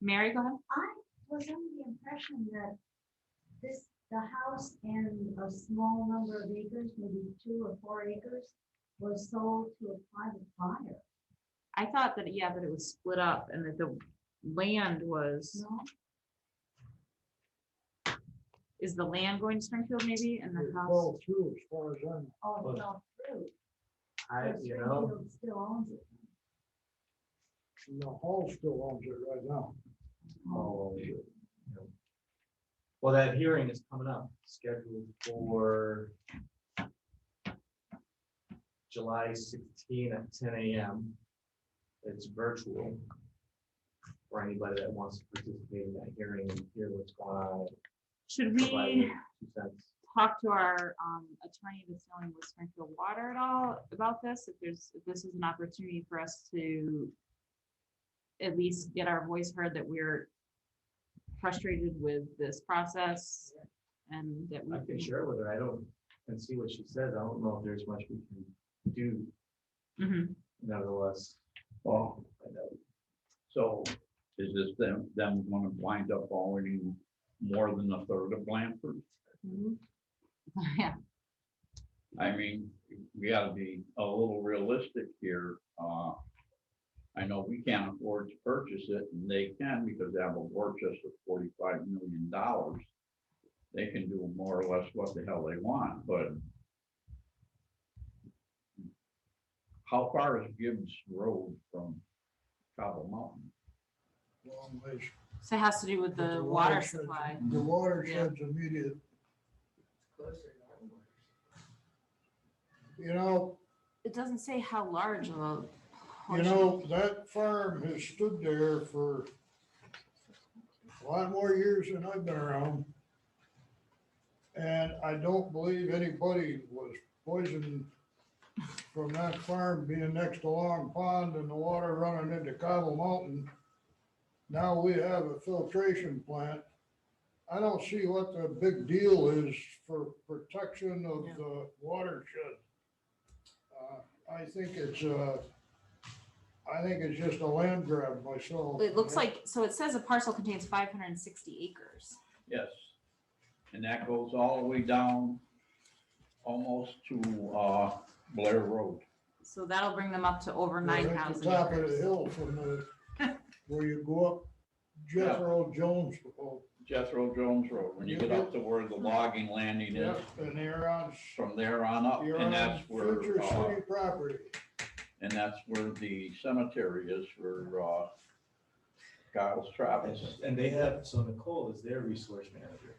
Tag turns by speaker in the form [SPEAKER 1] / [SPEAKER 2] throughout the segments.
[SPEAKER 1] Mary, go ahead.
[SPEAKER 2] I was under the impression that this, the house and a small number of acres, maybe two or four acres, was sold to a private buyer,
[SPEAKER 1] I thought that, yeah, that it was split up and that the land was,
[SPEAKER 2] no?
[SPEAKER 1] is the land going to Springfield maybe and the
[SPEAKER 3] It
[SPEAKER 1] house?
[SPEAKER 3] fell through as far as I'm.
[SPEAKER 2] Oh,
[SPEAKER 3] Well,
[SPEAKER 2] no, true.
[SPEAKER 4] I,
[SPEAKER 2] so
[SPEAKER 4] you know,
[SPEAKER 2] Springfield Still owns it.
[SPEAKER 3] The hall still owns it right now.
[SPEAKER 4] oh, you know. well, that hearing is coming up, scheduled for July sixteen at ten AM. It's virtual for anybody that wants to participate in that hearing and hear what's going on.
[SPEAKER 1] Should
[SPEAKER 4] provide
[SPEAKER 1] we
[SPEAKER 4] two cents.
[SPEAKER 1] talk to our um, attorney that's dealing with Springfield Water at all about this? If there's, if this is an opportunity for us to at least get our voice heard that we're frustrated with this process and that we.
[SPEAKER 4] I can share with her, I don't, and see what she says, I don't know if there's much we can do
[SPEAKER 1] Mhm.
[SPEAKER 4] nevertheless.
[SPEAKER 5] Oh,
[SPEAKER 4] I know.
[SPEAKER 5] so is this them, them gonna wind up owning more than a third of Blanford?
[SPEAKER 1] mm-hmm. Yeah,
[SPEAKER 5] I mean, we gotta be a little realistic here. Uh, I know we can't afford to purchase it and they can because they have a war chest of forty-five million dollars. They can do more or less what the hell they want, but how far is Gibbs Road from Cobble Mountain?
[SPEAKER 3] Long ways.
[SPEAKER 1] so it has to do with
[SPEAKER 3] But
[SPEAKER 1] the water
[SPEAKER 3] watershed's-
[SPEAKER 1] supply.
[SPEAKER 3] The water
[SPEAKER 1] Yeah.
[SPEAKER 3] sheds immediate. You know,
[SPEAKER 1] It doesn't say how large of a.
[SPEAKER 3] you
[SPEAKER 1] portion.
[SPEAKER 3] know, that farm has stood there for a lot more years than I've been around. And I don't believe anybody was poisoned from that farm being next to Long Pond and the water running into Cobble Mountain. Now we have a filtration plant. I don't see what the big deal is for protection of
[SPEAKER 1] Yeah.
[SPEAKER 3] the watershed. Uh, I think it's, uh, I think it's just a land grab myself.
[SPEAKER 1] It looks like, so it says a parcel contains five hundred and sixty acres.
[SPEAKER 5] Yes. And that goes all the way down almost to uh, Blair Road.
[SPEAKER 1] So that'll bring them up to over
[SPEAKER 3] Well,
[SPEAKER 1] nine
[SPEAKER 3] that's
[SPEAKER 1] thousand
[SPEAKER 3] the Top of the
[SPEAKER 1] acres.
[SPEAKER 3] hill from the, where you go up Jethro Jones, oh,
[SPEAKER 5] Jethro Jones Road, when you get up to where the logging landing
[SPEAKER 3] yeah,
[SPEAKER 5] is,
[SPEAKER 3] and they're on,
[SPEAKER 5] from there on up,
[SPEAKER 3] you're
[SPEAKER 5] and
[SPEAKER 3] on
[SPEAKER 5] that's where,
[SPEAKER 3] future
[SPEAKER 5] uh,
[SPEAKER 3] city property.
[SPEAKER 5] and that's where the cemetery is for uh, Giles Travis.
[SPEAKER 4] And they have, so Nicole is their resource manager.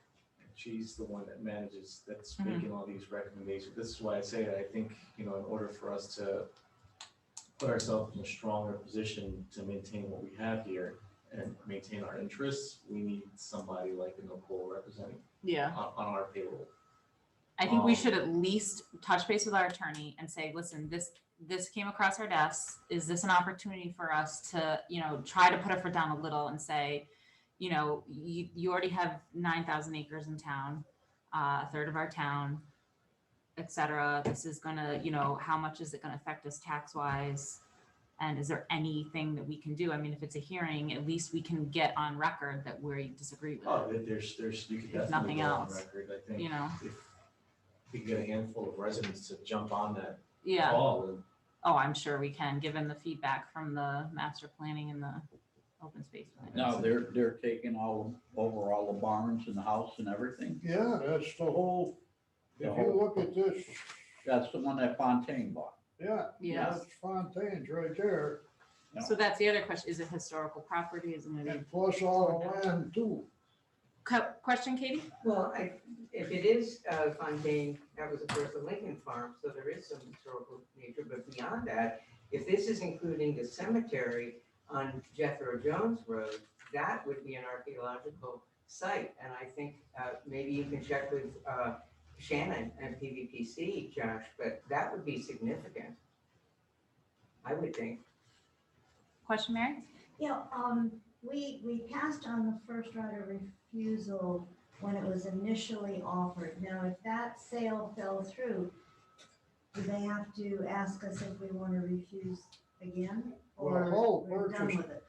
[SPEAKER 4] She's the one that manages, that's
[SPEAKER 1] Mhm.
[SPEAKER 4] making all these recommendations. This is why I say that I think, you know, in order for us to put ourselves in a stronger position to maintain what we have here and maintain our interests, we need somebody like a Nicole representing
[SPEAKER 1] Yeah,
[SPEAKER 4] on, on our payroll.
[SPEAKER 1] I think we
[SPEAKER 4] Um,
[SPEAKER 1] should at least touch base with our attorney and say, listen, this, this came across our desks. Is this an opportunity for us to, you know, try to put our foot down a little and say, you know, you, you already have nine thousand acres in town, uh, a third of our town, et cetera. This is gonna, you know, how much is it gonna affect us tax wise? And is there anything that we can do? I mean, if it's a hearing, at least we can get on record that we disagree with
[SPEAKER 4] Oh,
[SPEAKER 1] it,
[SPEAKER 4] there- there's, there's, you could
[SPEAKER 1] If nothing
[SPEAKER 4] definitely go on
[SPEAKER 1] else,
[SPEAKER 4] record, I
[SPEAKER 1] you
[SPEAKER 4] think.
[SPEAKER 1] know?
[SPEAKER 4] If we can get a handful of residents to jump on that
[SPEAKER 1] Yeah.
[SPEAKER 4] call and
[SPEAKER 1] Oh, I'm sure we can, given the feedback from the master planning and the open space. plan.
[SPEAKER 5] Now, they're, they're taking all, over all the barns and the house and everything.
[SPEAKER 3] Yeah, that's the whole, if
[SPEAKER 5] The
[SPEAKER 3] you
[SPEAKER 5] whole-
[SPEAKER 3] look at this,
[SPEAKER 5] That's the one that Fontaine bought.
[SPEAKER 3] yeah,
[SPEAKER 1] Yes,
[SPEAKER 3] that's Fontaine's right there,
[SPEAKER 5] Yeah.
[SPEAKER 1] so that's the other question, is it historical property, is it? gonna be-
[SPEAKER 3] and plus all the land too.
[SPEAKER 1] Que- Question, Katie?
[SPEAKER 6] Well, I, if it is uh, Fontaine, that was of course the Lincoln Farm, so there is some historical nature, but beyond that, if this is including the cemetery on Jethro Jones Road, that would be an archaeological site, and I think uh, maybe you can check with uh, Shannon and PVPC, Josh, but that would be significant. I would think.
[SPEAKER 1] Question, Mary?
[SPEAKER 2] Yeah, um, we, we passed on the first right of refusal when it was initially offered. Now, if that sale fell through, do they have to ask us if we want to refuse again?
[SPEAKER 3] Well, the
[SPEAKER 2] Or
[SPEAKER 3] whole
[SPEAKER 2] we're done
[SPEAKER 3] purchase,
[SPEAKER 2] with it?